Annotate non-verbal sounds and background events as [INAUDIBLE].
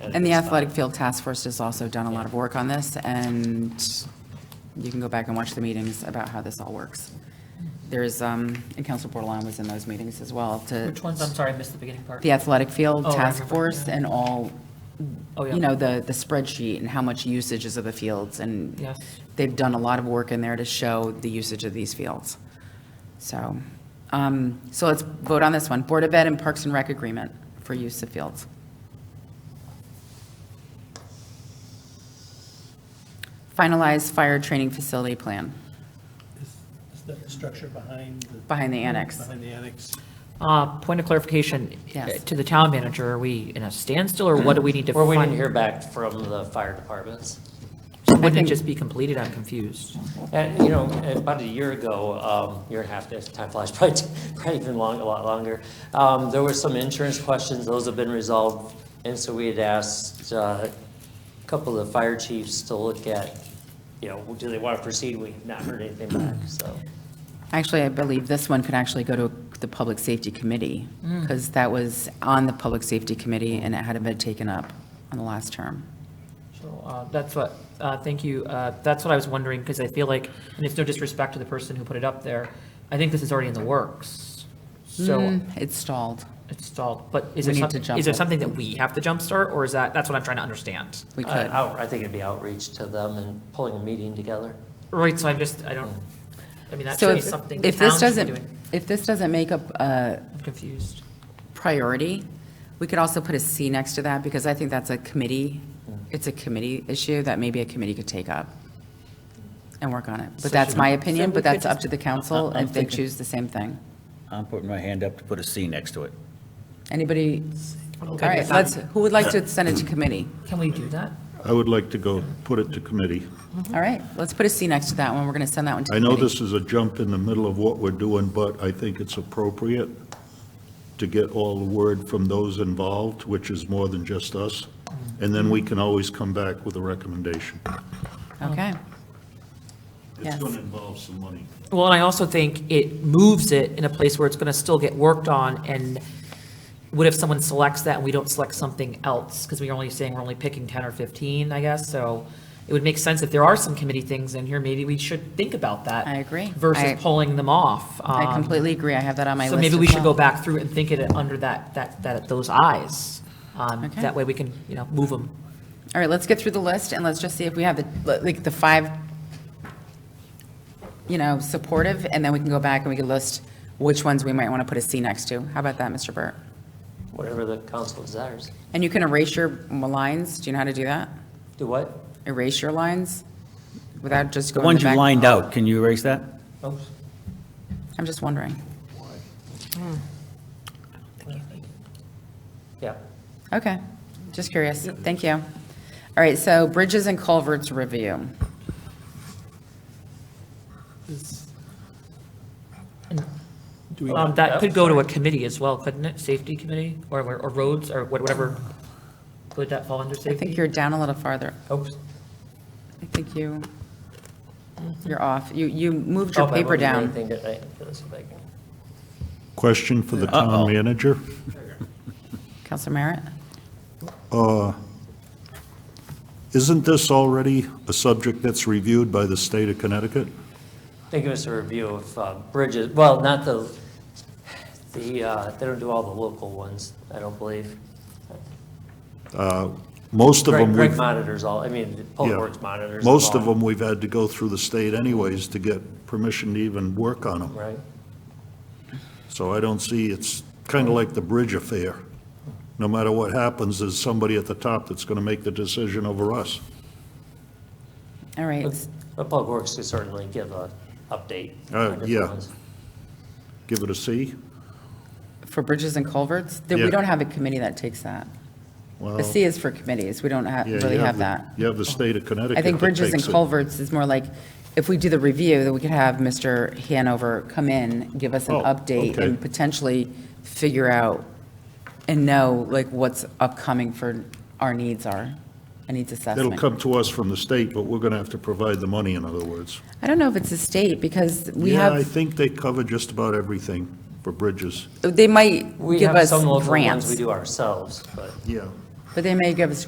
And the Athletic Field Task Force has also done a lot of work on this, and you can go back and watch the meetings about how this all works. There's, um, and Council Bordelon was in those meetings as well, to. Which ones? I'm sorry, I missed the beginning part. The Athletic Field Oh, I Task remember, Force yeah. and all, Oh, yeah. you know, the, the spreadsheet and how much usage is of the fields, and Yes. they've done a lot of work in there to show the usage of these fields. So, um, so let's vote on this one, Board of Ed and Parks and Rec agreement for use of fields. Finalize fire training facility plan Is is that the structure behind the, behind the annex. behind the annex? Uh, Point of clarification, Yes. to the town manager, are we in a standstill, or what do we need to? We're waiting to fin- hear back from the fire departments. So Wouldn't think- it just be completed? I'm confused. And, you know, about a year ago, um, year and a half, there's- time flies, [LAUGHS] probably, probably even long, a lot longer. Um, there were some insurance questions, those have been resolved. And so we had asked, uh, a couple of the fire chiefs to look at, you know, do they want to proceed? We've not heard anything [CLEARS THROAT] back, so. Actually, I believe this one could actually go to the Public Safety Committee, because that was on the Public Safety Committee, and it hadn't been taken up on the last term. So uh, that's what, uh, thank you, Uh, that's what I was wondering, because I feel like, and it's no disrespect to the person who put it up there, I think this is already in the works, so Mm, It stalled. it's stalled, but is We it need some- to jump is it it. something that we have to jumpstart, or is that, that's what I'm trying to understand? We I- could. out- I think it'd be outreach to them and pulling a meeting together. Right, so I'm just, I don't, I mean, that's So if, something the if town this should be doesn't, doing. if this doesn't make up a I'm confused. priority, we could also put a C next to that, because I think that's a committee, Mm. it's a committee issue that maybe a committee could take up and work on it. But that's my opinion, but that's up to the council, I'm if they thinking- choose the same thing. I'm putting my hand up to put a C next to it. Anybody? All Okay, Mm-hmm. right, fine. let's, who would like to send it to committee? Can we do that? I would like to go put it to committee. All right, let's put a C next to that one. We're going to send that one to I know committee. this is a jump in the middle of what we're doing, but I think it's appropriate to get all the word from those involved, which is more than just us, and then we can always come back with a recommendation. Okay, It's Yes. going to involve some money. Well, and I also think it moves it in a place where it's going to still get worked on, and what if someone selects that and we don't select something else? Because we're only saying we're only picking 10 or 15, I guess, so it would make sense if there are some committee things in here, maybe we should think about that. I agree. I- Versus pulling them off. I Um, completely agree. I have that on my list So maybe as we should go well. back through and think it under that, that, that, those eyes. Um, Okay. That way we can, you know, move them. All right, let's get through the list and let's just see if we have the, like, the five, you know, supportive, and then we can go back and we can list which ones we might want to put a C next to. How about that, Mr. Burt? whatever the council desires. And you can erase your lines. Do you know how to do that? Do what? Erase your lines without just The going to ones the you back? lined out, can you erase that? I'm just wondering. Yeah. Okay, just curious. Thank you. All right, so bridges and culverts review. Um, That could go to a committee as well, couldn't it? Safety committee, or or roads, or whatever, would that fall under I safety? think you're down a little farther. Oops. I think you, you're off. You, you moved Oh, your but I paper wouldn't do down. anything today. Let's see if I can- Question for the town Uh-oh. manager. Counselor Merritt? Uh, Isn't this already a subject that's reviewed by the state of Connecticut? They give us a review of uh, bridges, well, not the, the, uh, they don't do all the local ones, I don't believe. Most of Greg them we've Greg monitors all, I mean, Public Yeah. Works monitors. Most of all, them, we've had to go through the state anyways to get permission to even work on them. Right? So I don't see, it's kind of like the bridge affair. No matter what happens, there's somebody at the top that's going to make the decision over us. All right, But but Public Works could certainly give a update. Uh, on different yeah. ones. Give it a C? for bridges and culverts, then we Yeah. don't have a committee that takes that. Well, The C is for committees. We don't ha- yeah, you really have the- that. You have the state of Connecticut I think that bridges and takes it. culverts is more like, if we do the review, then we could have Mr. Hanover come in, give us an Oh, update okay. and potentially figure out and know like what's upcoming for our needs are, our needs assessment. It'll come to us from the state, but we're going to have to provide the money, in other words. I don't know if it's a state because we Yeah, I have, think they cover just about everything for bridges. they might We give have us some local ones we grants, do ourselves, but. Yeah. but they may give us